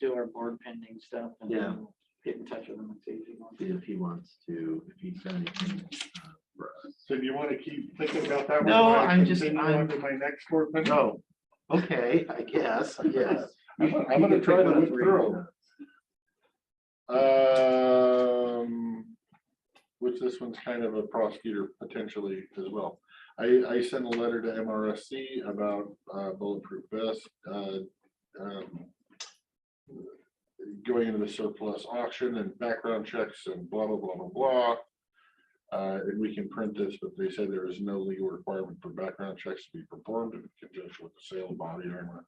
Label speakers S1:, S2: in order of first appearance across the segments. S1: do our board pending stuff and
S2: Yeah.
S1: then we'll get in touch with them and see if he wants.
S2: if he wants to, if he's done anything. uh, for us.
S3: So do you want to keep thinking about that? one
S2: No,
S3: while I
S2: I'm just-
S3: continue
S2: I'm-
S3: on to My next word.
S2: No, okay, I guess, yes.
S3: I'm gonna- I'm gonna try to look through. Um, which this one's kind of a prosecutor potentially as well. I, I sent a letter to MRSC about uh, bulletproof vest. uh, um, Going into the surplus auction and background checks and blah, blah, blah, blah, blah. Uh, and we can print this, but they said there is no legal requirement for background checks to be performed in conjunction with the sale of body armor.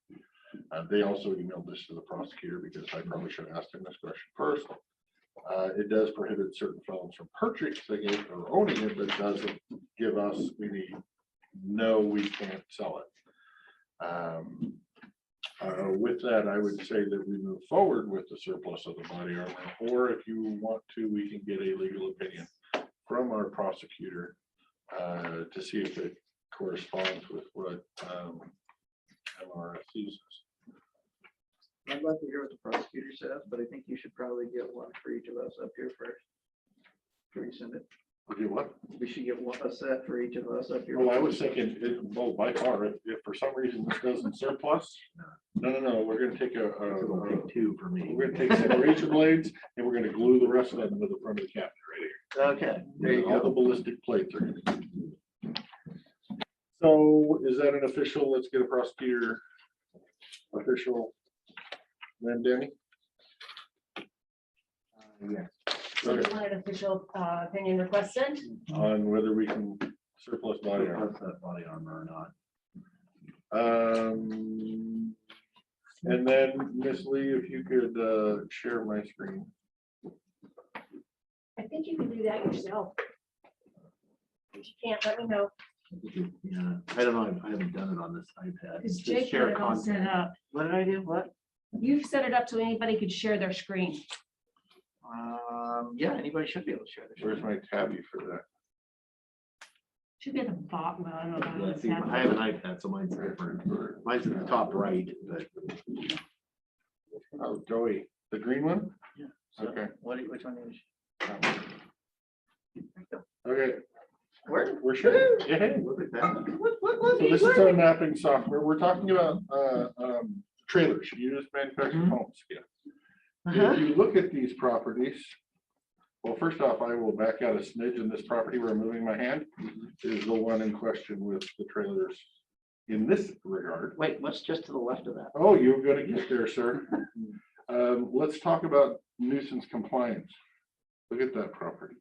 S3: Uh, they also emailed this to the prosecutor because I probably should have asked him this question first. Uh, it does prohibit certain felons from purchasing it or owning it, but it doesn't give us any, no, we can't sell it. Um, uh, with that, I would say that we move forward with the surplus of the body armor, or if you want to, we can get a legal opinion from our prosecutor uh, to see if it corresponds with what um, MRSC says.
S1: I'd like to hear what the prosecutor says, but I think you should probably get one for each of us up here first. Before you send it.
S3: Okay, what?
S1: We should get one, a set for each of us up here.
S3: Well, I was thinking, it- well, by far, if if for some reason this doesn't surplus, no, no, no, we're gonna take a, a-
S2: So we'll
S3: a-
S2: pick two for me.
S3: uh, we're gonna take separation blades and we're gonna glue the rest of them into the front of the cabinet right here.
S2: Okay, there you
S3: All the
S2: go.
S3: ballistic plates are gonna. be glued. So is that an official? Let's get a prosecutor official. Then Danny?
S4: So you
S3: Okay,
S4: want an official uh, opinion requested?
S3: On whether we can surplus body armor.
S2: Surplus that Body armor or not.
S3: Um, and then Miss Lee, if you could, uh, share my screen.
S4: I think you can do that yourself. If you can't, let me know,
S2: Yeah, I don't know, I haven't done it on this iPad.
S4: because
S2: Just
S4: Jake
S2: share
S4: had it all set
S2: content.
S4: up.
S1: What did I do? What?
S4: You've set it up so anybody could share their screen.
S1: Um, yeah, anybody should be able to share
S3: Where's
S1: this.
S3: my tabby for that?
S4: Should be at the bottom, I don't know. about
S2: Yeah, I
S4: this
S2: see,
S4: app.
S2: I have an iPad, so mine's different. Mine's in the top right, but
S3: Oh, Joey, the green one?
S1: Yeah.
S3: Okay.
S1: What, do you- which one is?
S3: Okay,
S1: Where?
S3: we're sure. Yeah.
S2: look at that.
S3: So this is our mapping software. We're talking about, uh, um, trailers, used manufactured
S1: Mhm.
S3: homes. Yeah. If you look at these properties, well, first off, I will back out a smidge in this property where I'm moving my hand is the one in question with the trailers in this regard.
S1: Wait, what's just to the left of that?
S3: Oh, you're gonna get there, sir. Um, let's talk about nuisance compliance. Look at that property.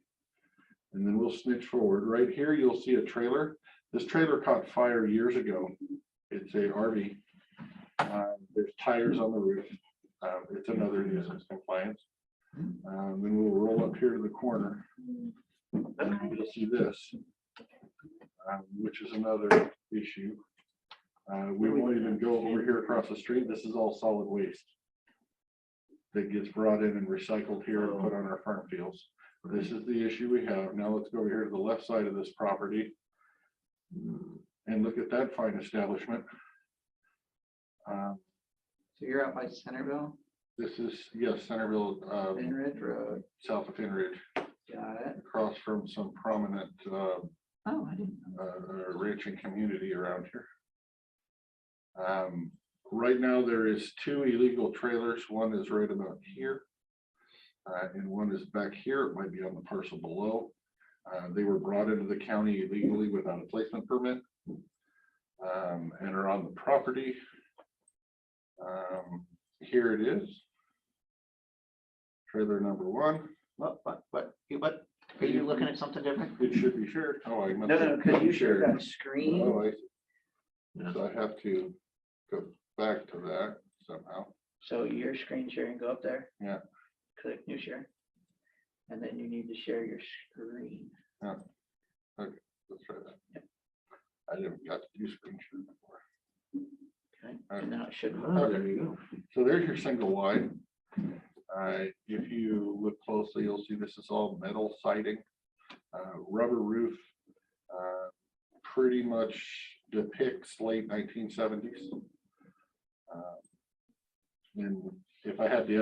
S3: And then we'll snitch forward. Right here, you'll see a trailer. This trailer caught fire years ago. It's a RV. Um, There's tires on the roof. Um, It's another nuisance compliance. Um, Then we'll roll up here to the corner. And You'll see this, um, which is another issue. Uh, We won't even go over here across the street. This is all solid waste that gets brought in and recycled here and put on our farm fields. This is the issue we have. Now let's go over here to the left side of this property and look at that fine establishment. Uh,
S1: So you're out by Centerville,
S3: This is, yes, Centerville, um,
S1: Enridge Road,
S3: south of Henry,
S1: got it.
S3: across from some prominent uh,
S1: Oh, I didn't. know.
S3: uh, uh, ranching community around here. Um, Right now, there is two illegal trailers. One is right about here. uh, And one is back here. It might be on the parcel below. Uh, They were brought into the county illegally without a placement permit. um, And are on the property. Um, Here it is. Trailer number one.
S1: What, what, what, you- what, are you looking at something different?
S3: It should be shared. Oh, I. must
S1: No,
S3: have
S1: no, because you shared that
S3: Oh,
S1: screen.
S3: I
S2: Yeah.
S3: So I have to go back to that somehow.
S1: So your screen sharing, go up there.
S3: Yeah.
S1: Click new share. And then you need to share your screen.
S3: Let's try that. I didn't got to do screen share before.
S1: Okay, and now it should.
S3: Ah.
S2: Oh, There you go.
S3: So there's your single wide. Uh, if you look closely, you'll see this is all metal siding, uh, rubber roof. uh, Pretty much depicts late nineteen seventies. Uh, And if I had the